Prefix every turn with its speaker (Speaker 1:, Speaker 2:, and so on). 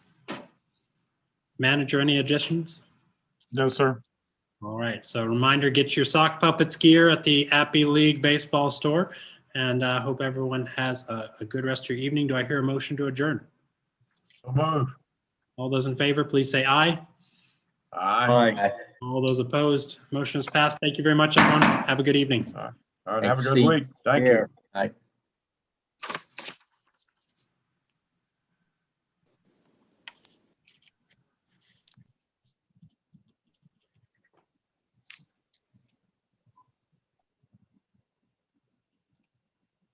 Speaker 1: Manager, any additions?
Speaker 2: No, sir.
Speaker 1: All right, so reminder, get your sock puppets gear at the Appy League Baseball Store. And I hope everyone has a, a good rest of your evening. Do I hear a motion to adjourn?
Speaker 2: So move.
Speaker 1: All those in favor, please say aye.
Speaker 2: Aye.
Speaker 3: All right.
Speaker 1: All those opposed, motion is passed. Thank you very much, everyone. Have a good evening.
Speaker 2: All right, have a good
Speaker 3: See.
Speaker 2: week. Thank you.
Speaker 3: Here. Bye.